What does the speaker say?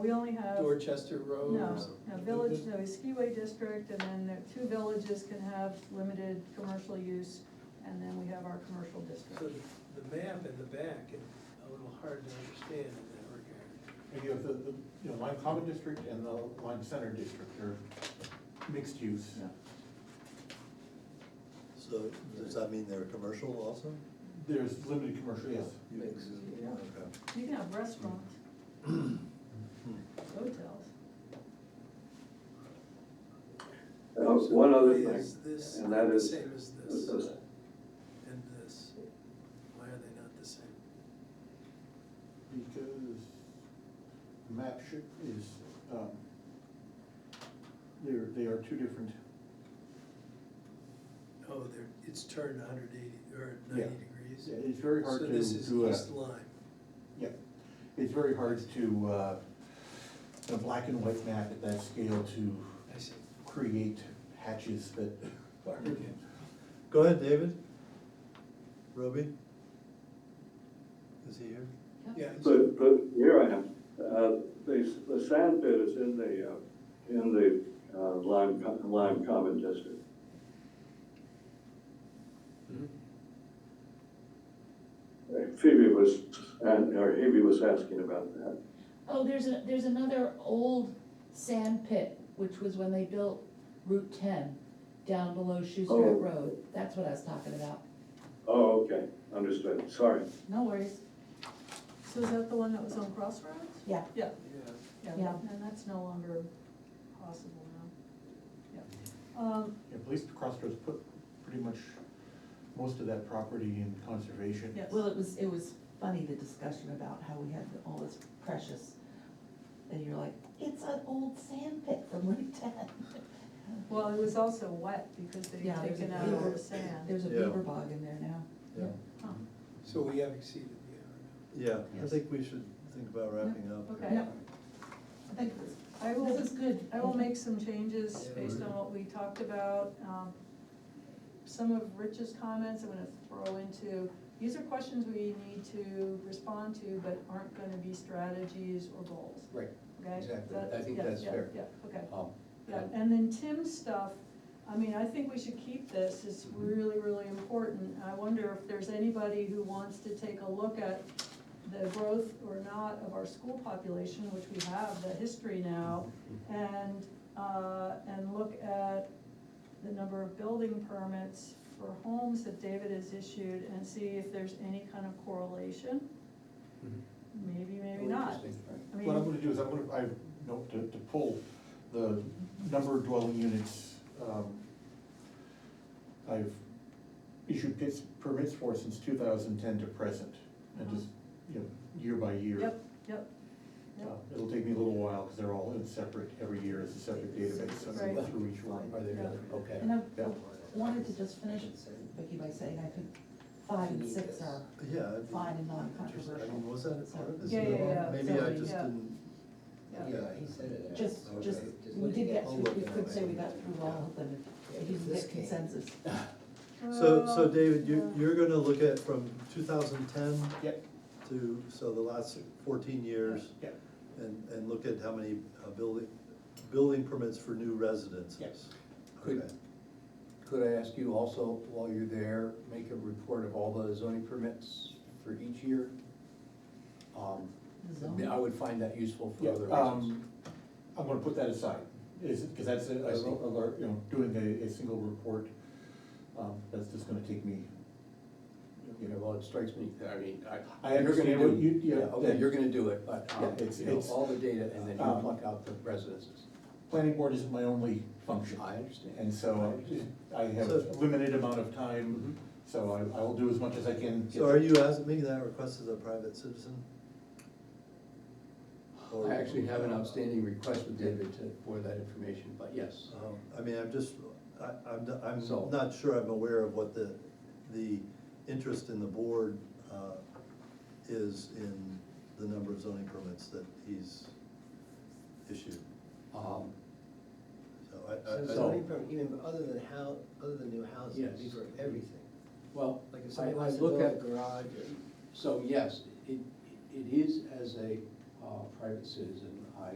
We only have, no, Dorchester Road or something. no village, no skiway district, and then the two villages can have limited commercial use, and then we have our commercial So district. the map in the back is a little hard to understand in that regard. And you have the, the, you know, Lime Common District and the Lime Center District are mixed use. Yeah. So does that mean they're commercial also? There's limited commercial, yes. Mix. Okay. You can have restaurants, Hmm. hotels. Oh, One other thing, Is this and that is- Same as this and this, why are they not the same? Because the map should, is, um, they're, they are two different, Oh, they're, it's turned hundred eighty, or Yeah. ninety degrees? Yeah, it's very hard So to this is do a- East Lyme, yeah, it's very hard to, uh, a black and white map at that scale to I see. create hatches that are Go ahead, David. Roby? Is he here? Yeah. but, but here I am. Uh, The, the sand pit is in the, uh, in the uh, Lime, Co- Lime Common District. Mhm. Uh, Phoebe was, and, or Hebe was asking about that. Oh, there's a, there's another old sand pit, which was when they built Route ten down below Oh. Schuster Road. That's what I was talking about. Oh, okay, understood, sorry. No worries. So is that the one that was on Crossroads? Yeah. Yeah, Yeah. yeah, Yeah. and that's no longer possible now. Yeah. Um, Yeah, Police Crossroads put pretty much most of that property in conservation. Yes. Well, it was, it was funny, the discussion about how we had all this precious, and you're like, it's an old sand pit from Route ten. Well, it was also wet because they Yeah, had there's a taken out all beaver- the sand. There's a Yeah. beaver bog in there now. Yeah. Huh, So we have exceeded the Yeah, I Yes. think we should think about wrapping up. Okay. Yep. I think this, I will. this is good. I will make some changes Yeah. based on what we talked about. Um, Some of Rich's comments I'm gonna throw into, these are questions we need to respond to, but aren't gonna be strategies or goals, Right, okay? Exactly. That- I think yeah, that's yeah, fair. Yeah, okay. um, Yeah, and then Tim's stuff, I mean, I think we should keep this, it's Mm-hmm. really, really important. I wonder if there's anybody who wants to take a look at the growth or not of our school population, which we have, the history now, Mm-hmm. and, uh, and look at the number of building permits for homes that David has issued and see if there's any kind of correlation. Mm-hmm. Maybe, maybe not. I What I'm mean, gonna do is I'm gonna, I note to, to pull the number of dwelling units, um, I've issued pits, permits for since two thousand ten to present, and just, you know, year by year. Uh-huh. yep, yep, Uh, yep. It'll take me a little while, cause they're all in separate, every year is a separate database, so I go Right. through each one. Are they really, okay. And I Yeah. wanted to just finish, Vicky, by saying I think five and six are Yeah. I'd be fine interested. I and mean, non-controversial. was that a part of this? Yeah, at yeah, all? yeah. Maybe I Sorry, just yeah. didn't. Yeah. he said it. Just, Okay. just, we look did at get it. through, we could say we got through all of them, if you can get consensus. So, Well, so David, you, yeah. you're gonna look at from two thousand ten Yep, to, so the last fourteen years. yep, And, and look at how many uh, building, building permits for new residences. Yes. Okay. Could, could I ask you also, while you're there, make a report of all the zoning permits for each year? Um, The I zone. mean, I would find that useful for Yeah, other reasons. um, I'm gonna put that aside, is, because that's a, I a, see. a lar- you know, doing a, a single report, um, that's just gonna take me. You know, well, it strikes me, I mean, I. I you're gonna understand do what it. you- yeah, Okay, that- you're gonna do it, but, Yeah, um, it's- you know, it's- all the data and then you um, pluck out the residences. Planning board isn't my only function. I understand. And I so uh, understand. Mm-hmm. I have So- a limited amount of time, so I, I will do as much as I can. So are you asking, making that request as a private citizen? Or- I actually have an outstanding request with David to, for that information, but yes. Um, I mean, I'm just, I, I'm, not- So- I'm not sure I'm aware of what the, the interest in the board, uh, is in the number of zoning permits that he's issued, Um, so I, I. So I- zoning permit, even other than how, other than new houses, it'd be Yes. for everything. Well, Like if I, somebody I wants to build look a at, garage or. so yes, it, it is as a uh, private citizen